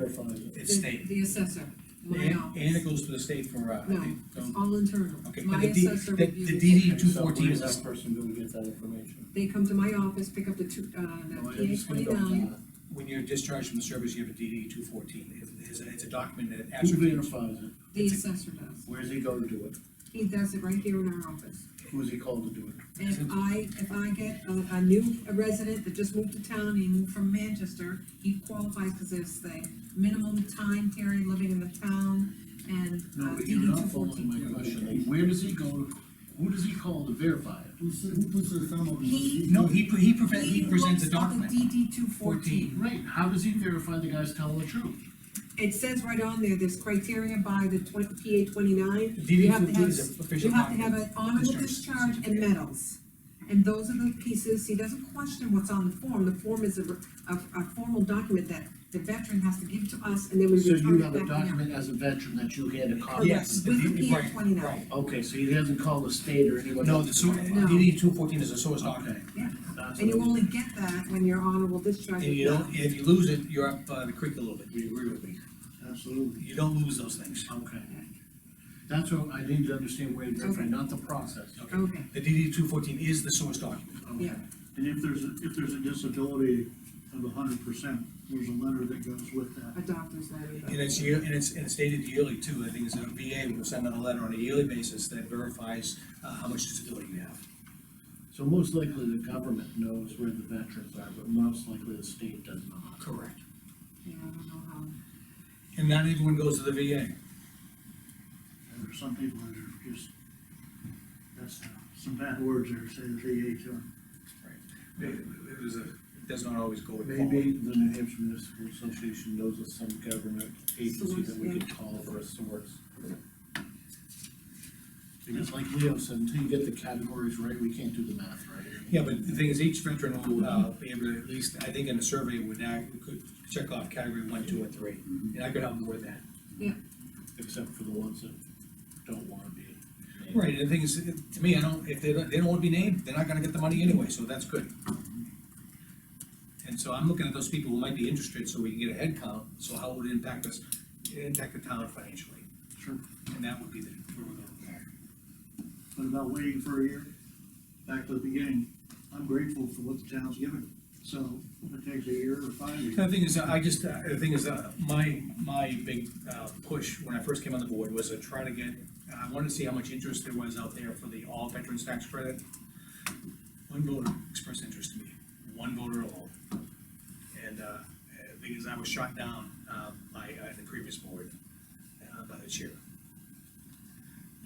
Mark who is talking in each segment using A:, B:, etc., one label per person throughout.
A: from the
B: The-
A: it's state.
B: The assessor, my
A: And- And it
B: office.
A: goes to the state for, uh, I
B: No,
A: think,
B: It's
A: don't-
B: all internal.
A: okay, but
B: My
A: the D,
B: assessor
A: the
B: reviews.
A: the DD
B: it.
A: two
C: So
A: fourteen
C: where
A: is,
C: does that person go to get that information?
B: They come to my office, pick up the two,
A: Oh,
B: uh, the
C: No, I'm
B: PA
C: just gonna go with
B: twenty-nine.
C: that.
A: when you're discharged from the service, you have a DD two fourteen, it's, a- it's a document that
C: Who
A: ascertains.
C: verifies it?
B: The assessor does.
C: Where's he go to do it?
B: He does it right here in our office.
C: Who's he called to do it?
B: And if I, if I get a, a new resident that just moved to town, he moved from Manchester, he qualifies because there's the minimum time period living in the town and.
C: No,
B: uh,
C: but you're not
B: DD
C: following
B: 214.
C: my question. Where does he go to, who does he call to verify it?
D: Who said, who puts the thumb on the?
B: He-
A: No, he, pre- he prevent,
B: He
A: he presents a
B: looks up
A: document.
B: the DD two fourteen.
C: Right, how does he verify the guy's telling the truth?
B: It says right on there, there's criteria by the twenty, PA twenty-nine.
A: DD
B: You have
A: 214
B: to have,
A: is an official
B: you have to have
A: document.
B: an honorable
A: Discharge.
B: discharge and medals. And those are the pieces, he doesn't question what's on the form, the form is a, a, a formal document that the veteran has to give to us, and then we
C: So you
B: return it
C: have a
B: back to him.
C: document as a veteran that you had a copy? of?
A: Yes. the
B: With
A: DD
B: the PA
A: right, right.
B: twenty-nine,
C: Okay, so he hasn't called the state or anyone?
A: No,
C: else
A: the,
C: to
A: so-
C: verify?
A: DD two fourteen is a source
C: Okay.
A: document.
B: yeah,
C: that's
B: and you
C: what it
B: only get that when you're honorable discharge.
A: And you don't, if you lose it, you're up uh, the creek a little bit, we agree with me.
C: is. Absolutely.
A: You don't lose those things.
C: Okay. That's what I need to understand where to verify,
B: Okay.
C: not the process.
B: Okay,
A: The DD two fourteen is the source document.
C: Okay.
B: yeah,
E: And if there's, a- if there's a disability of hundred percent, there's a letter that goes with that.
B: a doctor's letter. but-
A: And it's year, and it's, and it's dated yearly too, I think it's a VA will send out a letter on a yearly basis that verifies, uh, how much disability you have.
C: So most likely the government knows where the veterans are, but most likely the state does not.
A: Correct.
B: Yeah, I don't know how.
A: And not everyone goes to the VA.
E: And there's some people that are just, that's uh, some bad words there, say the VA to them.
A: It, it was a, it does not always go with.
C: Maybe the New Hampshire Municipal Association knows of some government agency that we
B: Source, yeah.
C: could call for a source. Because like Leo said, until you get the categories right, we can't do the math right.
A: Yeah, but the thing is, each veteran will, uh, be able to, at least, I think in the survey, would act, could check off category one, two, and three, and I could help them with that.
C: Except for the ones that don't wanna be. named.
A: Right, and the thing is, to me, I don't, if they don't, they don't wanna be named, they're not gonna get the money anyway, so that's good. And so I'm looking at those people who might be interested, so we can get a head count, so how would it impact us, impact the town financially?
E: Sure.
A: And that would be the, where we're going there.
E: But about waiting for a year, back to the beginning, I'm grateful for what the town's given. So if it takes a year or five years,
A: The thing is, I just, uh, the thing is, uh, my, my big uh, push when I first came on the board was to try to get, I wanted to see how much interest there was out there for the all veterans tax credit. One voter expressed interest to me, one voter alone. And, uh, the thing is, I was shot down, uh, by, uh, the previous board, uh, by the chair.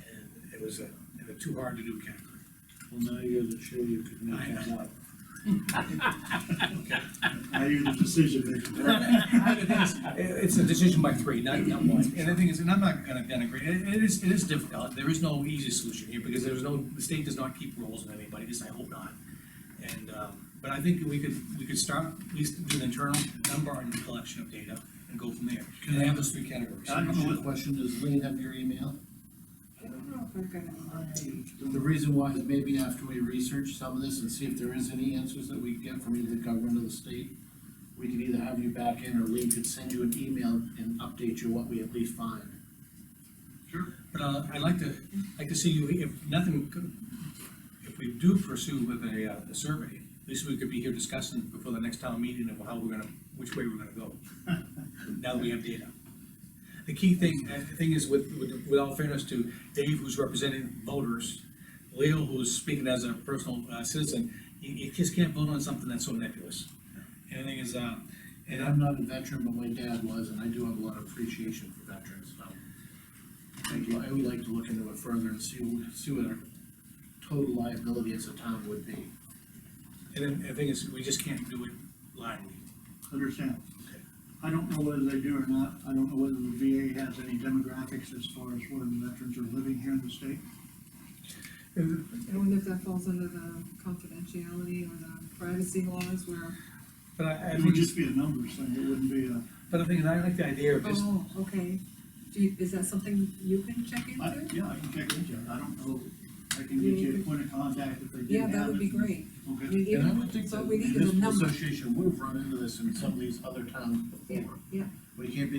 A: And it was a, in a too hard to do category.
C: Well, now you're the chair, you could make that up.
E: now you're the decision maker.
A: It- It's a decision by three, not, not one. And the thing is, and I'm not gonna denigrate, it, it is, it is difficult, there is no easy solution here, because there's no, the state does not keep rules on anybody, at least I hope not. And, um, but I think we could, we could start, at least do an internal number and collection of data, and go from there. And I have those three categories.
C: I don't know what question, does Lee have your email?
B: I don't know if I've got it.
C: The reason why is maybe after we research some of this and see if there is any answers that we can get from either the government or the state, we can either have you back in, or Lee could send you an email and update you what we at least find.
A: But, uh, I'd like to, like to see you, if nothing, could- if we do pursue with a, uh, a survey, at least we could be here discussing before the next town meeting of how we're gonna, which way we're gonna go. Now that we have data. The key thing, uh, the thing is with, with, with all fairness to Dave, who's representing voters, Leo, who's speaking as a personal uh, citizen, you, you just can't vote on something that's so nebulous. And the thing is, uh,
C: And I'm not a veteran, but my dad was, and I do have a lot of appreciation for veterans, so. Thank you. I would like to look into it further and see, what- see what our total liability as a town would be.
A: and then the thing is, we just can't do it blindly.
E: Understand?
A: Okay.
E: I don't know whether they do or not. I don't know whether the VA has any demographics as far as where the veterans are living here in the state.
B: I wonder if that falls under the confidentiality or the privacy laws where,
A: But I, I
E: It
A: think
E: would
A: it's-
E: just be a numbers thing, it wouldn't be a,
A: But I think, I like the idea of just,
B: oh, okay. Do you, is that something you can check
E: I,
B: into?
E: yeah, I can check into it, I don't know, I can get you a point of contact if they didn't
B: Yeah,
E: have it.
B: that would be great. I
E: Okay,
B: mean,
C: And I
B: even-
C: would think
B: so
C: that
B: we
C: the
B: need is a
C: municipal
B: number.
C: association would have run into this in some of these other towns
B: Yeah,
C: before.
B: yeah.
C: We can't be